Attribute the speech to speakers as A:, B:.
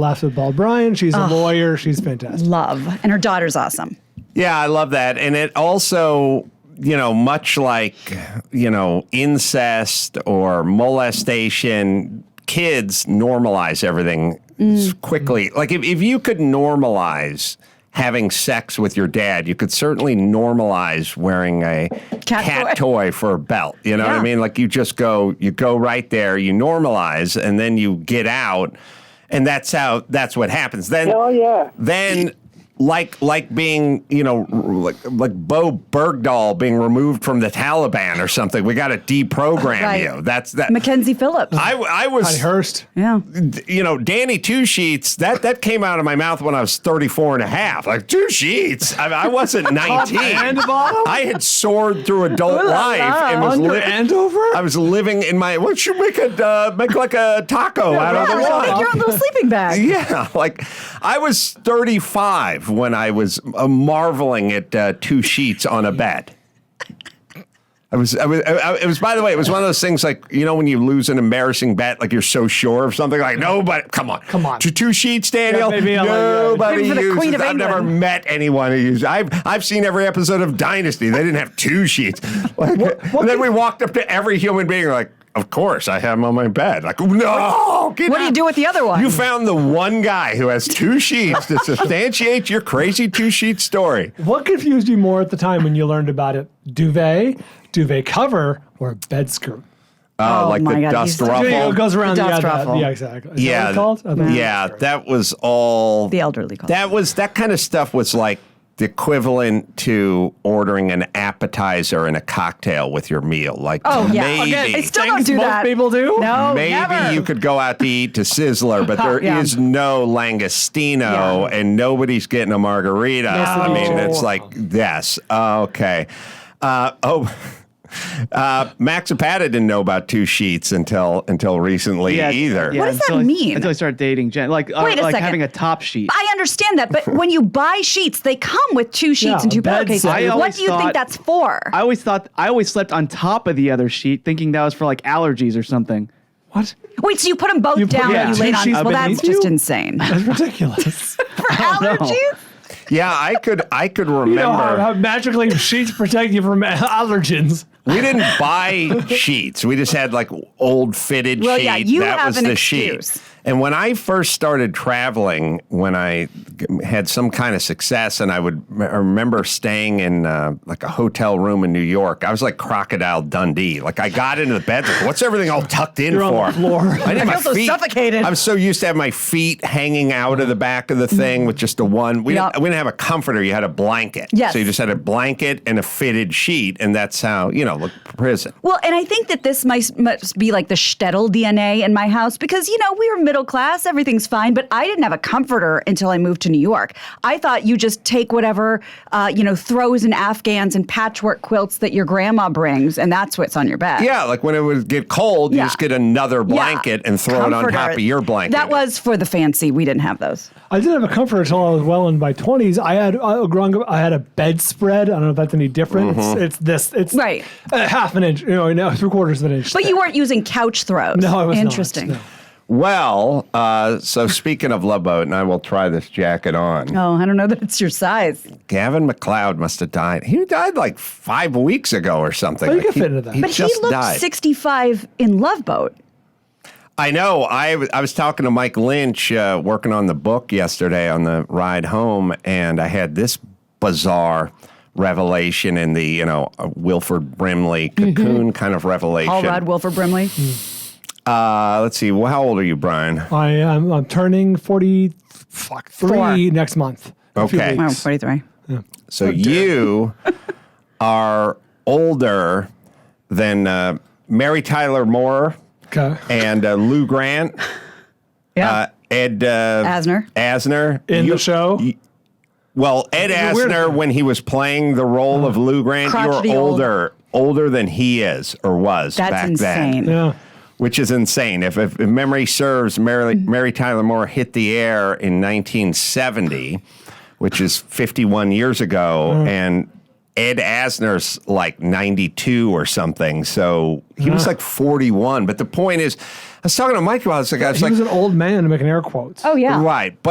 A: laughs with Bob Bryan. She's a lawyer. She's fantastic.
B: Love. And her daughter's awesome.
C: Yeah, I love that. And it also, you know, much like, you know, incest or molestation, kids normalize everything s- quickly. Like, if, if you could normalize having sex with your dad, you could certainly normalize wearing a
B: Cat
C: cat,
B: toy.
C: toy. for a belt. You know what
B: Yeah.
C: I mean? Like, you just go, you go right there, you normalize, and then you get out. And that's how, that's what happens. Then,
D: Oh, yeah.
C: then like like being you know r- like like Bo Bergdahl being removed from the Taliban or something. We got to deprogram
B: Right.
C: you. That's that.
B: Mackenzie Phillips.
C: I I
A: Connie
C: was
A: Hurst.
B: yeah.
C: you know Danny Two Sheets that that came out of my mouth when I was 34 and a half. Like Two Sheets. I, I wasn't 19.
A: and bottom?
C: I had soared through adult
B: Ooh la
C: life
B: la.
C: and was
A: Under
C: li-
A: and over?
C: I was living in my. What should make a uh, make like a taco out
B: Yeah,
C: of the
B: like,
C: wine?
B: make your own little sleeping bag.
C: Yeah, like I was 35 when I was uh, marveling at uh, two sheets on a bed. I was, I was, I, I- it was, by the way, it was one of those things like, you know, when you lose an embarrassing bet, like you're so sure of something, like, nobody, come on.
A: Come on.
C: To two sheets, Daniel.
A: maybe I'll let you-
C: nobody
B: Maybe for the
C: uses
B: Queen of
C: I've never
B: England.
C: met anyone who uses I've, I've seen every episode of Dynasty. They didn't have two sheets. Like, and then we walked up to every human being, like, of course, I have them on my bed. Like, no, get
B: What do you
C: out."
B: do with the other one?
C: You found the one guy who has two sheets to substantiate your crazy two sheet story.
A: What confused you more at the time when you learned about it? Duvet, duvet cover, or bed skirt?
C: Oh, like
B: my
C: the
B: God,
C: dust
B: he's-
A: Yeah, it
C: ruffle.
A: goes around.
B: The
A: yeah,
B: dust
A: that-
B: ruffle.
A: yeah, exactly. Is that
C: Yeah,
A: what it's called? I think it's
C: yeah,
A: bed skirt.
C: that was all.
B: The elderly call.
C: That was that kind of stuff was like the equivalent to ordering an appetizer and a cocktail with your meal. Like
B: Oh, yeah.
C: maybe.
B: Again, I still don't
A: Things
B: do
A: most
B: that.
A: people do?
B: No,
C: Maybe
B: Oh, never.
C: you could go out to eat to Sizzler, but there is
B: Yeah.
C: no Langostino,
B: Yeah.
C: and nobody's getting a margarita. I
B: it
C: mean,
B: is.
C: it's like yes, okay. Uh, oh, uh, Max Zapata didn't know about two sheets until until recently either.
B: What does that
E: until I-
B: mean?
E: Until I started dating Jen, like uh,
B: Wait a
E: like
B: second.
E: having a top sheet.
B: I understand that, but when you buy sheets, they come with two sheets
A: Yeah,
B: and two
A: bed
B: pillowcases.
A: side. I
B: What
E: always
B: do you think
E: thought-
B: that's for?
E: I always thought I always slept on top of the other sheet, thinking that was for like allergies or something.
A: what?
B: Wait, so you put them both
A: You put-
B: down
E: yeah,
B: and you
E: two
B: laid on?
A: sheets
B: Well, that's
A: beneath
B: just
A: you?
B: insane.
A: That's ridiculous.
B: for allergies?
C: Yeah, I could I could remember.
A: you know how, how magically sheets protect you from allergens.
C: We didn't buy sheets. We just had like old fitted
B: Well,
C: sheet.
B: yeah, you
C: that
B: have
C: was
B: an
C: the
B: excuse.
C: sheet. And when I first started traveling, when I g- had some kind of success, and I would m- I remember staying in uh, like a hotel room in New York, I was like Crocodile Dundee. Like I got into the bed, like, what's everything all tucked in
A: You're on
C: for?
A: the floor.
C: I, didn't have
B: I
C: my
B: feel so
C: feet-
B: suffocated.
C: I'm so used to have my feet hanging out of the back of the thing with just the one. We,
B: Yup.
C: didn't, we didn't have a comforter. You had a blanket.
B: Yes.
C: So you just had a blanket and a fitted sheet, and that's how you know, like prison.
B: Well, and I think that this might, must be like the shtetl DNA in my house because, you know, we were middle class, everything's fine, but I didn't have a comforter until I moved to New York. I thought you just take whatever, uh, you know, throws and afghans and patchwork quilts that your grandma brings, and that's what's on your bed.
C: Yeah, like when it would get cold,
B: Yeah.
C: you just get another
B: Yeah.
C: blanket and throw it on
B: Comforter.
C: top of your blanket.
B: That was for the fancy. We didn't have those.
A: I didn't have a comforter until I was well in my twenties. I had uh, growing up, I had a bedspread. I don't know if that's any different.
C: Mm-hmm.
A: It's, it's this. It's
B: Right.
A: a half an inch. You know, no, three quarters of an inch.
B: But you weren't using couch throws.
A: No, I was not,
B: Interesting.
A: no.
C: well. Uh, so speaking of Love Boat, and I will try this jacket on.
B: Oh, I don't know that it's your size.
C: Gavin McLeod must have died. He died like five weeks ago or something.
A: Oh, you
C: Like,
A: could
C: he,
A: fit into that.
C: He
B: But
C: just
B: he looked
C: died.
B: 65 in Love Boat.
C: I know. I, w- I was talking to Mike Lynch uh, working on the book yesterday on the ride home, and I had this bizarre revelation in the you know uh, Wilford Brimley cocoon kind of revelation.
B: All Rod Wilford Brimley.
C: Uh, let's see. Well, how old are you, Brian?
A: I am I'm turning forty, fuck three
B: Four.
A: next month. A few
C: Okay.
A: weeks.
B: Wow, 43.
C: So you are older than uh, Mary Tyler Moore
A: Okay.
C: and uh, Lou Grant,
B: Yeah.
C: uh, Ed uh,
B: Asner.
C: Asner
A: In
C: You-
A: the show,
C: Well, Ed
A: a weird Uh,
C: Asner,
A: guy.
C: when he was playing the role of Lou Grant,
B: Crotchety
C: you're
B: old.
C: older, older than he is or was
B: That's
C: back
B: insane.
C: then.
A: yeah.
C: Which is insane. If, if, if memory serves, Mary,
B: Mm-hmm.
C: Mary Tyler Moore hit the air
A: Mm.
C: in 1970, which is 51 years ago, and Ed Asner's like 92 or something. So he was
A: Uh.
C: like 41. But the point is, I was talking to Mike about this. Like, I was
A: He
C: like,
A: was an old man making air quotes.
B: Oh yeah.
C: right. But